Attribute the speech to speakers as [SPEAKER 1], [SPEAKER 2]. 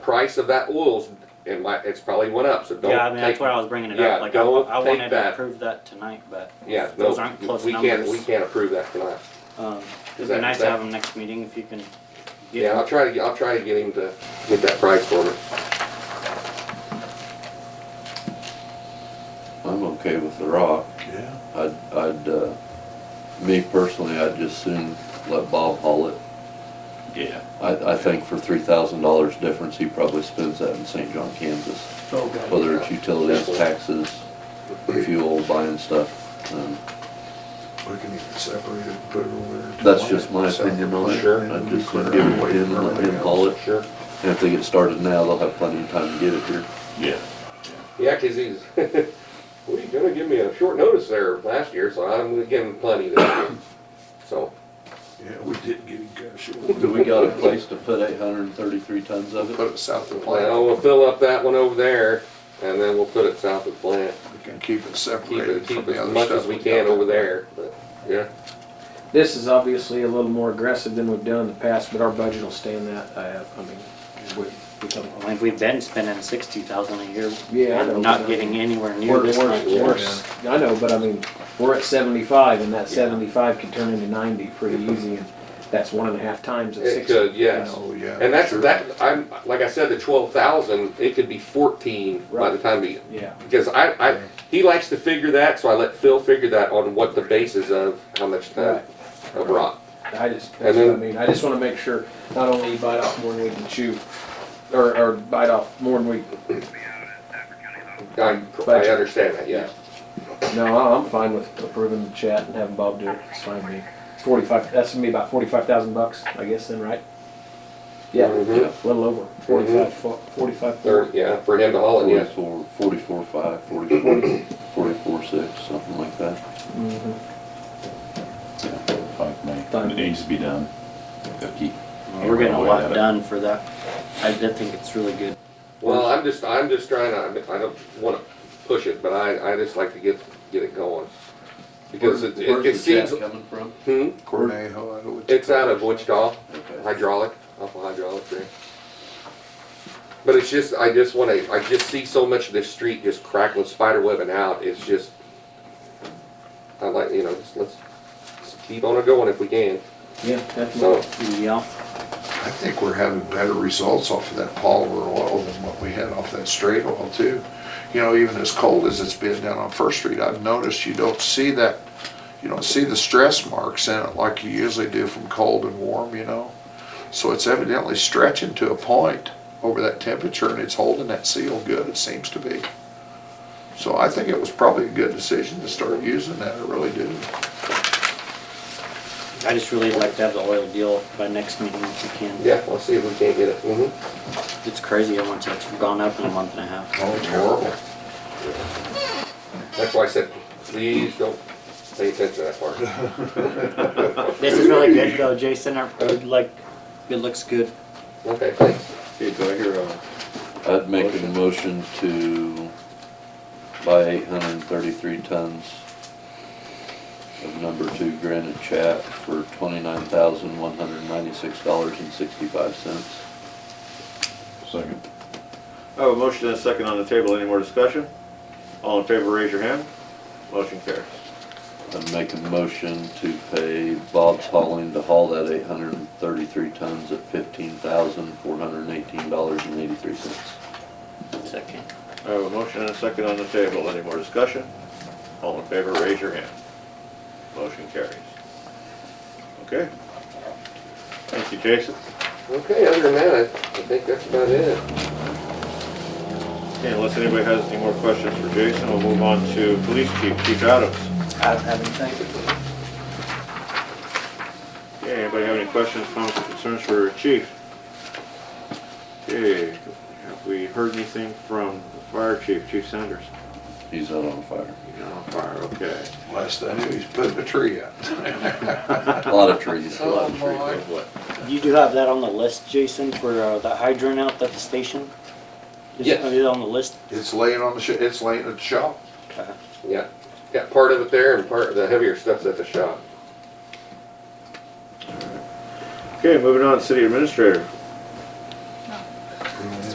[SPEAKER 1] price of that oil's, it might, it's probably went up, so don't
[SPEAKER 2] Yeah, I mean, that's
[SPEAKER 1] take.
[SPEAKER 2] why I was bringing it
[SPEAKER 1] yeah,
[SPEAKER 2] up, like, I,
[SPEAKER 1] don't
[SPEAKER 2] I
[SPEAKER 1] take
[SPEAKER 2] wanted to
[SPEAKER 1] that.
[SPEAKER 2] approve that tonight, but
[SPEAKER 1] Yeah,
[SPEAKER 2] those
[SPEAKER 1] no,
[SPEAKER 2] aren't close
[SPEAKER 1] we can't, we
[SPEAKER 2] numbers.
[SPEAKER 1] can't approve that tonight.
[SPEAKER 2] Um,
[SPEAKER 1] Is
[SPEAKER 2] it'd
[SPEAKER 1] that-
[SPEAKER 2] be nice
[SPEAKER 1] that-
[SPEAKER 2] to have them next meeting if you can
[SPEAKER 1] Yeah, I'll
[SPEAKER 2] get,
[SPEAKER 1] try to, get- I'll try to get him to get that price for me.
[SPEAKER 3] I'm okay with the rock.
[SPEAKER 4] Yeah.
[SPEAKER 3] I'd, I'd, uh, me personally, I'd just soon let Bob haul it.
[SPEAKER 4] Yeah.
[SPEAKER 3] I, I think for three thousand dollars difference, he probably spends that in St. John, Kansas.
[SPEAKER 1] Oh,
[SPEAKER 4] Okay.
[SPEAKER 3] Whether it's utilities, taxes, fuel, buying stuff. um,
[SPEAKER 4] We can even separate it and put it over there.
[SPEAKER 3] That's just my opinion on it.
[SPEAKER 4] Sure.
[SPEAKER 3] I'd just give it to him and let him haul it.
[SPEAKER 1] Sure.
[SPEAKER 3] And if they get started now, they'll have plenty of time to get it here.
[SPEAKER 4] Yeah.
[SPEAKER 1] Yeah, 'cause he's, well, he's gonna give me a short notice there last year, so I'm gonna give him plenty this year. So,
[SPEAKER 4] Yeah, we did get it cut short.
[SPEAKER 3] Do we got a place to put eight hundred and thirty-three tons of
[SPEAKER 4] Put
[SPEAKER 3] it?
[SPEAKER 4] it south of the plant.
[SPEAKER 1] well, we'll fill up that one over there, and then we'll put it south of the plant.
[SPEAKER 4] We can keep it
[SPEAKER 1] Keep it,
[SPEAKER 4] separated from
[SPEAKER 1] keep
[SPEAKER 4] the
[SPEAKER 1] as
[SPEAKER 4] other stuff.
[SPEAKER 1] much as we can
[SPEAKER 4] got.
[SPEAKER 1] over there, but, yeah.
[SPEAKER 5] This is obviously a little more aggressive than we've done in the past, but our budget will stand that, I have, I mean, we, we come.
[SPEAKER 2] I think we've been spending sixty thousand a year.
[SPEAKER 5] Yeah, I know,
[SPEAKER 2] And not
[SPEAKER 5] but-
[SPEAKER 2] getting anywhere near
[SPEAKER 5] We're,
[SPEAKER 2] this much.
[SPEAKER 5] we're, we're, I know, but I mean, we're at seventy-five, and that
[SPEAKER 2] Yeah.
[SPEAKER 5] seventy-five could turn into ninety pretty easy, and that's one and a half times of
[SPEAKER 1] It
[SPEAKER 5] sixty.
[SPEAKER 1] could, yes.
[SPEAKER 4] Oh, yeah.
[SPEAKER 1] And that's,
[SPEAKER 4] sure.
[SPEAKER 1] that, I'm, like I said, the twelve thousand, it could be fourteen by the
[SPEAKER 5] Right.
[SPEAKER 1] time we,
[SPEAKER 5] Yeah,
[SPEAKER 1] because I, I, he likes to figure that, so I let Phil figure that on what the basis of how much time
[SPEAKER 5] Right.
[SPEAKER 1] of rock.
[SPEAKER 5] I just,
[SPEAKER 1] And
[SPEAKER 5] that's what I
[SPEAKER 1] then-
[SPEAKER 5] mean, I just wanna make sure, not only you bite off more than we can chew, or, or bite off more than we,
[SPEAKER 1] I, I
[SPEAKER 5] Budget.
[SPEAKER 1] understand that, yes.
[SPEAKER 5] no, I- I'm fine with approving the chat and having Bob do it, it's fine with me. Forty-five, that's gonna be about forty-five thousand bucks, I guess then, right? Yeah.
[SPEAKER 1] Mhm.
[SPEAKER 5] A little over, forty-five, fo- forty-five,
[SPEAKER 1] Thir
[SPEAKER 5] forty.
[SPEAKER 1] yeah, for him to haul it, yes.
[SPEAKER 3] Forty-four, forty-four five, forty-four, forty-four six, something like that.
[SPEAKER 5] Mhm.
[SPEAKER 6] Five
[SPEAKER 5] Fine.
[SPEAKER 6] May, it needs to be done. Cookie.
[SPEAKER 2] We're getting a lot done for that. I did think it's really good.
[SPEAKER 1] Well, I'm just, I'm just trying to, I don't wanna push it, but I, I just like to get, get it going. Because it, it it
[SPEAKER 3] Where's the
[SPEAKER 1] seems,
[SPEAKER 3] chat coming from?
[SPEAKER 1] hmm,
[SPEAKER 4] Cornejo, I know what you-
[SPEAKER 1] it's out of Wichita.
[SPEAKER 3] Okay.
[SPEAKER 1] hydraulic, off a hydraulic there. But it's just, I just wanna, I just see so much of this street just crackling, spider webbing out, it's just, I like, you know, just let's, just keep on it going if we can,
[SPEAKER 5] Yeah, definitely.
[SPEAKER 1] so,
[SPEAKER 2] Yeah,
[SPEAKER 4] I think we're having better results off of that polymer oil than what we had off that straight oil too. You know, even as cold as it's been down on First Street, I've noticed you don't see that, you don't see the stress marks in it like you usually do from cold and warm, you know? So it's evidently stretching to a point over that temperature and it's holding that seal good, it seems to be. So I think it was probably a good decision to start using that, I really do.
[SPEAKER 2] I just really like to have the oil deal by next meeting if we can.
[SPEAKER 1] yeah, let's see if we can't get it, mm-hmm.
[SPEAKER 2] It's crazy how much it's gone up in a month and a half.
[SPEAKER 4] Oh, it's horrible.
[SPEAKER 1] That's why I said, please don't pay attention to that part.
[SPEAKER 2] This is really good though, Jason. I would like, it looks good.
[SPEAKER 1] Okay, thanks.
[SPEAKER 7] Okay, do I hear a,
[SPEAKER 3] I'd make a motion to buy eight hundred and thirty-three tons of number two granite chat for twenty-nine thousand, one hundred and ninety-six dollars and sixty-five cents.
[SPEAKER 6] Second.
[SPEAKER 7] I have a motion and a second on the table, any more discussion? All in favor, raise your hand. Motion carries.
[SPEAKER 3] I'd make a motion to pay Bob's Hauling to haul that eight hundred and thirty-three tons at fifteen thousand, four hundred and eighteen dollars and eighty-three cents.
[SPEAKER 2] Second.
[SPEAKER 7] I have a motion and a second on the table, any more discussion? All in favor, raise your hand. Motion carries. Okay. Thank you, Jason.
[SPEAKER 1] Okay, other than that, I, I think that's about it.
[SPEAKER 7] Okay, Unless anybody has any more questions for Jason, we'll move on to Police Chief, Chief Adams.
[SPEAKER 2] I don't have anything.
[SPEAKER 7] Okay, anybody have any questions, comments, or concerns for Chief? Okay, have we heard anything from the Fire Chief, Chief Sanders?
[SPEAKER 3] He's out on fire.
[SPEAKER 7] You're on fire, okay.
[SPEAKER 4] Last I knew, he's putting a tree out.
[SPEAKER 3] A lot of trees.
[SPEAKER 4] A lot of trees.
[SPEAKER 2] You do have that on the list, Jason, for uh, the hydrant out at the station? Is it-
[SPEAKER 1] Yes.
[SPEAKER 2] Is it on the list?
[SPEAKER 4] It's laying on the, sh- it's laying at the shop.
[SPEAKER 1] Yeah, got part of it there and part, the heavier stuff's at the shop.
[SPEAKER 7] Okay, moving on, City Administrator.